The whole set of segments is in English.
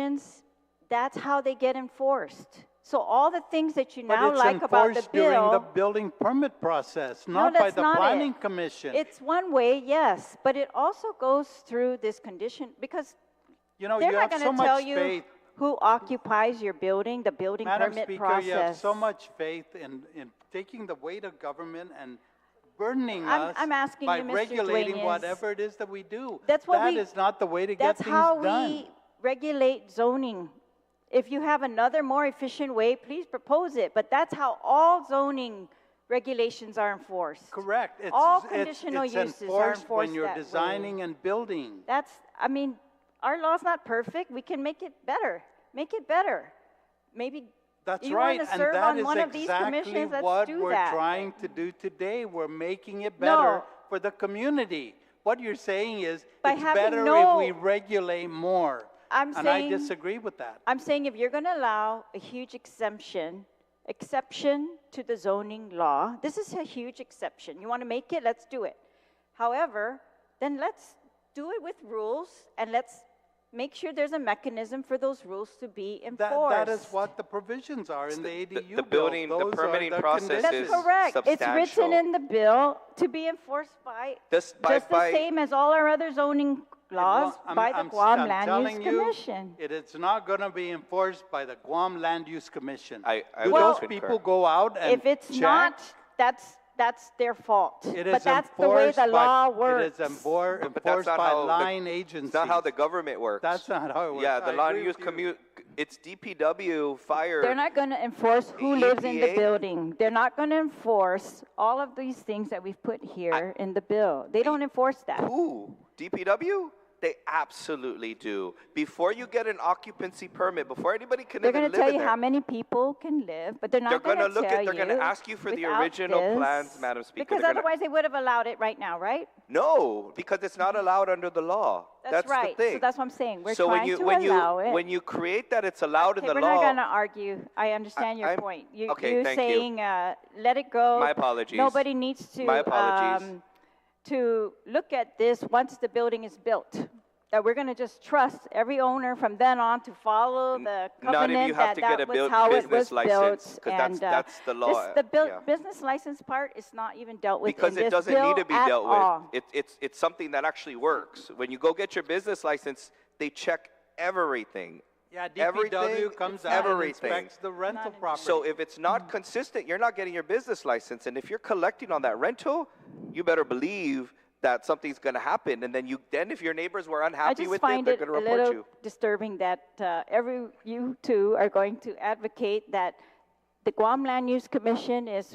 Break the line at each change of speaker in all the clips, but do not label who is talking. actions, that's how they get enforced. So all the things that you
But
now
it's
like about the
enforced during the
bill,
building permit process,
No,
not by
that's
the
not it.
planning commission.
it's one way, yes, but it also goes through this condition because
You know,
they're
you
not
have so
going to tell
much
you
faith.
who occupies your building, the building
Madam
permit
Speaker, you have
process.
so much faith in, in taking the weight of government and burdening
I'm-
us
I'm asking
by
you, Mr.
regulating
Dueñas.
whatever it is that we do.
That's what we-
That is not the way to get
That's
things
how
done.
we regulate zoning. If you have another more efficient way, please propose it, but that's how all zoning regulations are enforced.
Correct. It's-
All
it's-
conditional
it's
uses are
enforced
enforced
When you're
that way.
designing and building.
That's, I mean, our law's not perfect, we can make it better, make it better. Maybe
That's
you
right,
want to
and
serve
that
on
is
one of these
exactly
commissions, let's
what
do
we're
that.
trying to do today. We're making it better
No.
for the community. What you're saying is,
By
it's
having
better
no-
if we regulate more.
I'm
And I
saying-
disagree with that.
I'm saying if you're going to allow a huge exemption, exception to the zoning law, this is a huge exception. You want to make it, let's do it. However, then let's do it with rules and let's make sure there's a mechanism for those rules to be
That,
enforced.
that is what the provisions are in the ADU
the-
bill.
the building- the
Those are
permitting process
conditions.
That's
is
correct. It's written
substantial.
in the bill to be enforced by
This- by-
just the
by-
same as all our other zoning laws
I'm-
by the
I'm-
Guam
I'm
Land
telling
Use
you,
Commission.
It is not going to be enforced by the Guam Land Use Commission.
I- I
Do
would
those
concur.
people go out and
If it's
check?
not, that's, that's their fault.
It
But
is
that's the way
enforced
the
by-
law works.
It is enfor-
But that's
enforced
not
by
how the-
line
It's
agencies.
not how the government works.
That's not how it
Yeah,
works.
the
I
land
agree
use
with you.
commute. It's DPW, fire.
They're not going to enforce who lives in the
EPA?
building. They're not going to enforce all of these things that we've put here in the bill. They don't enforce that.
Who? DPW? They absolutely do. Before you get an occupancy permit, before anybody can
They're
even
going
live
to tell
in
you
there,
how many people can live, but they're
They're
not going
gonna
to
look at-
tell you.
they're gonna ask you for the
without
original
this,
plans, Madam Speaker.
Because
They're gonna-
otherwise, they would have allowed it right now, right?
No, because it's not allowed under the law.
Mm-hmm. That's
That's,
right.
the
So
thing.
that's what I'm saying. We're
So when
trying
you
to
when you
allow it.
when you create that, it's allowed in
Okay,
the
we're
law.
not going to argue. I understand your
I'm-
point. You,
okay,
you're
thank you.
saying uh, let it go.
My apologies.
Nobody needs to.
My apologies.
Um, to look at this once the building is built. That we're going to just trust every owner from then on to follow the
not if
covenant
you have
that
to
that
get a
was
built-
how it was
business license,
built.
'cause that's-
and, uh,
that's the law,
This, the buil-
yeah.
business license part is not even dealt with
because
in
it
this
doesn't
bill
need to be
at
dealt
all.
with. It, it's it's something that actually works. When you go get your business license, they check everything.
Yeah,
everything,
DPW comes out and
everything.
inspects the rental property.
So if it's not consistent, you're not getting your business license. And if you're collecting on that rental, you better believe that something's going to happen. And then you then if your neighbors were
I
unhappy
just
with it,
find
they're
it,
going to
a
report
little
you.
disturbing that uh, every you two are going to advocate that the Guam Land Use Commission is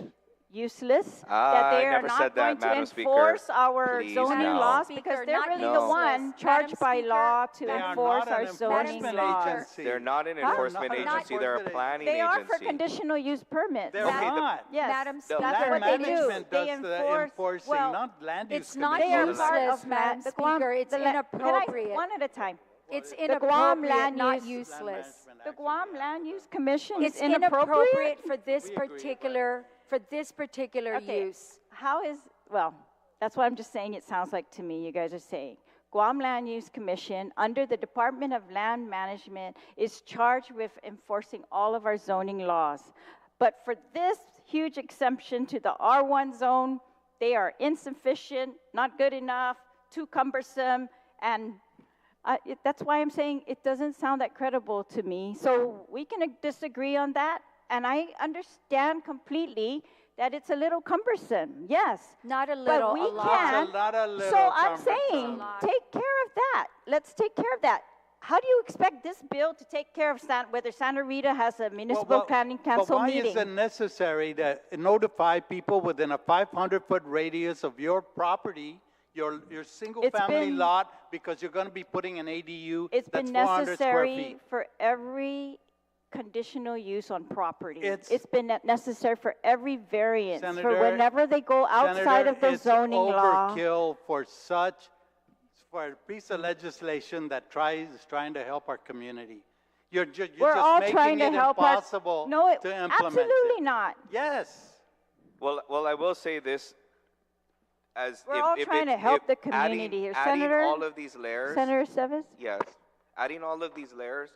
useless, that
Ah,
they
I
are
never
not
said that,
going
Madam
to
Speaker.
enforce our
Please,
zoning
no.
laws
Madam
because
Speaker,
they're
not
really the
useless.
one
Madam
charged by
Speaker,
law to
They are
enforce
not
our
an
zoning
enforcement
laws.
agency.
They're not an
Huh?
enforcement
They're not an
agency. They're a
enforcement
planning
They are
agency.
for conditional use permits.
They're
Okay, the-
not.
Yes,
Madam
that's
No,
what
land
they do.
management
They
does the
enforce-
enforcing,
well,
not land use
it's not
They
commission.
are
useless,
part of ma-
Madam
the Guam-
Speaker. It's
the la- Can I-
inappropriate.
One at a time.
It's
The Guam
inappropriate,
land
not
use-
useless.
The Guam Land Use Commission is
It's inappropriate for this particular, for this particular
Okay,
use.
How is, well, that's what I'm just saying, it sounds like to me, you guys are saying. Guam Land Use Commission, under the Department of Land Management, is charged with enforcing all of our zoning laws. But for this huge exemption to the R1 zone, they are insufficient, not good enough, too cumbersome, and I- it- that's why I'm saying it doesn't sound that credible to me. So we can ag- disagree on that, and I understand completely that it's a little cumbersome, yes.
Not a
But
little,
we
a lot.
can.
It's a lot of
So
little
I'm
cumbersome.
saying,
A lot.
take care of that. Let's take care of that. How do you expect this bill to take care of San, whether Santa Rita has a municipal planning council
But why is it
meeting?
necessary to notify people within a 500-foot radius of your property, your, your single-family
been-
lot, because you're going to be putting an ADU
It's
that's
been
400 square
necessary
feet?
for every conditional use on property.
It's-
It's been ne- necessary for every variance, for
Senator-
whenever they go outside
Senator,
of the
it's
zoning law.
overkill for such, for a piece of legislation that tries, is trying to help our community. You're ju- you're
We're all
just
trying
making
to
it
help us.
impossible
No, it-
to implement it.
absolutely not.
Yes.
Well, well, I will say this. As
We're
if,
all
if
trying to
it's-
help
if
the
adding-
community here.
adding
Senator-
all of these layers.
Senator Seves?
Yes. Adding all of these layers